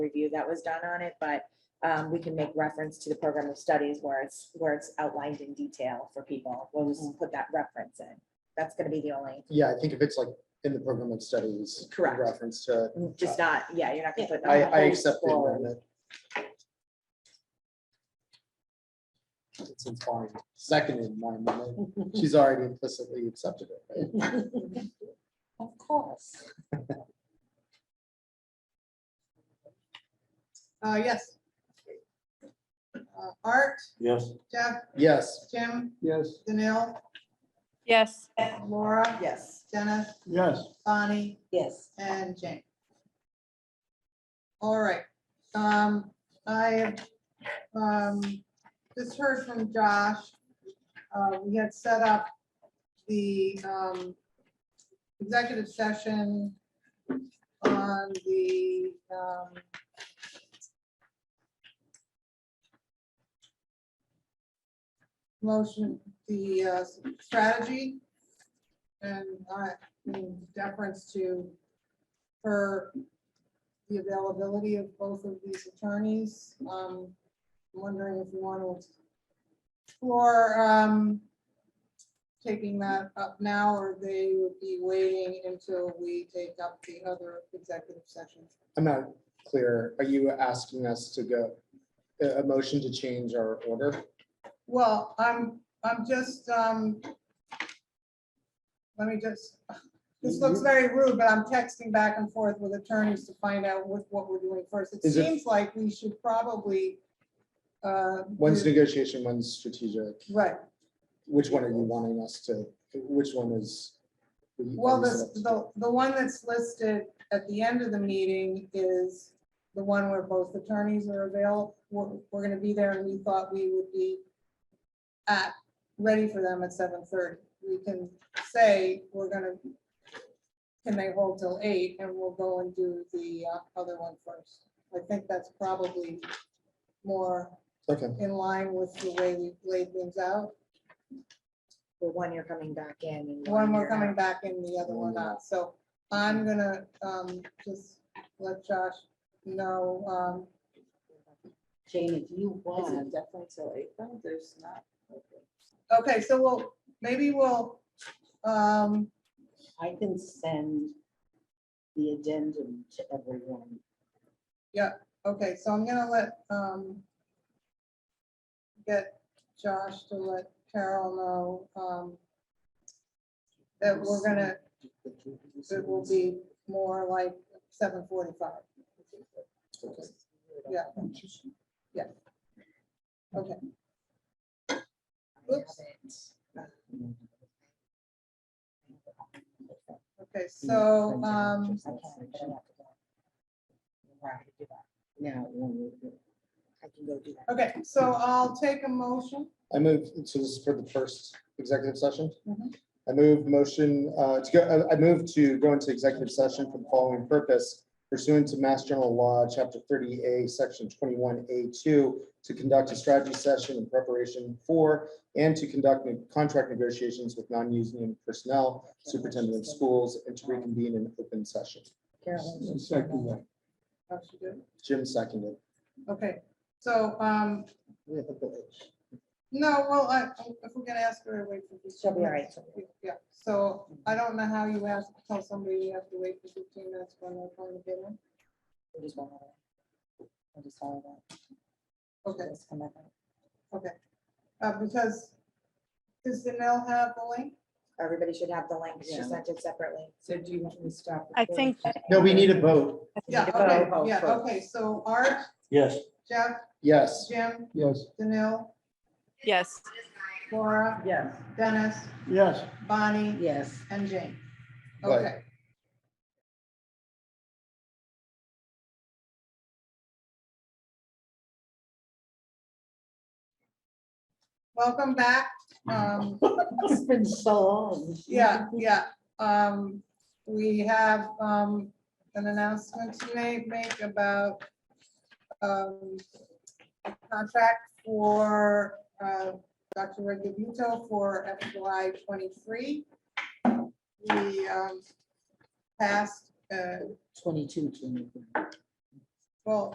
review that was done on it, but um, we can make reference to the program of studies where it's, where it's outlined in detail for people. We'll Mm-hmm. just put that reference in. That's gonna be the only, Yeah, I think if it's like in the program of studies. in Correct. Reference to, Mm-hmm. just not, yeah, you're not gonna put. the I, I whole accept the scroll. amendment. It's implying, seconded my amendment. She's already implicitly accepted it. right? Of course. Uh, yes. Uh, Art, Yes. Jeff, Yes, Jim, Yes. Danil, Yes. Laura. Yes. Dennis, Yes. Bonnie, Yes. and Jane. All right, um, I have, um, just heard from Josh. Uh, we had set up the, um, executive session on the, um, motion, the, uh, strategy. And I, in deference to her, the availability of both of these attorneys. Um, I'm wondering if you want to explore, um, taking that up now, or they would be waiting until we take up the other executive session. I'm not clear. Are you asking us to go, a, a motion to change our order? Well, I'm, I'm just, um, let me just, this looks very rude, but I'm texting back and forth with attorneys to find out what, what we're doing first. It Is it- seems like we should probably, uh, One's Mm-hmm. do- negotiation, one's strategic. Right, Which one are you wanting us to, which one is? are you- are well, we set this, up to- the, the one that's listed at the end of the meeting is the one where both attorneys are available. We're, we're gonna be there, and we thought we would be at, ready for them at seven thirty. We can say, we're gonna, can they hold till eight, and we'll go and do the uh, other one first. I think that's probably more Okay, in line with the way we laid things out. Well, one you're coming back in. and One you're more coming out. back in, the other one not. So I'm gonna um just let Josh know. um Jane, if you Is want, it definitely till April? There's not. Okay, so we'll, maybe we'll, um I can send the addendum to everyone. okay, so I'm gonna let um get Josh to let Carol know um that we're gonna, it will be more like seven forty-five. okay. Yeah. Yeah. Okay. Oops. Okay, so um I can, but I have to go. Now, when we do. I can go do that. Okay, so I'll take a motion. I move, so this is for the first executive session. Mhm. I move motion, uh, to go, I I move to go into executive session for the following purpose pursuant to Mass General Law, Chapter thirty A, Section twenty-one A two, to conduct a strategy session in preparation for and to conduct ne- contract negotiations with non-union personnel, superintendent of schools, and to reconvene in open session. Carolyn. Oh, she did? Jim seconded. Okay, so, um, We have a village. no, well, I, if we're gonna ask her to wait for She'll fifteen be all right. minutes. Yeah, so I don't know how you ask, tell somebody you have to wait for fifteen minutes when they're trying to get in. We'll just won't have it. We'll just follow that. Okay, Just come back out. uh, because, does Danell have the link? Everybody should have the link. She Yeah. sent it separately. So do you want me to stop? I recording? think, No, we need a vote. Yeah, to okay, vote. yeah, okay, so Art, Yes. Jeff, Yes. Jim, Yes. Danil, yes. Laura, Yes. Dennis, Yes. Bonnie, Yes. and Jane. Right. Okay. Welcome back. Um, It's been so long. yeah, yeah. Um, we have, um, an announcement to ma- make about, um, contract for, uh, Dr. Regubito for FY twenty-three. We, um, passed, uh, Twenty-two, twenty-three. well,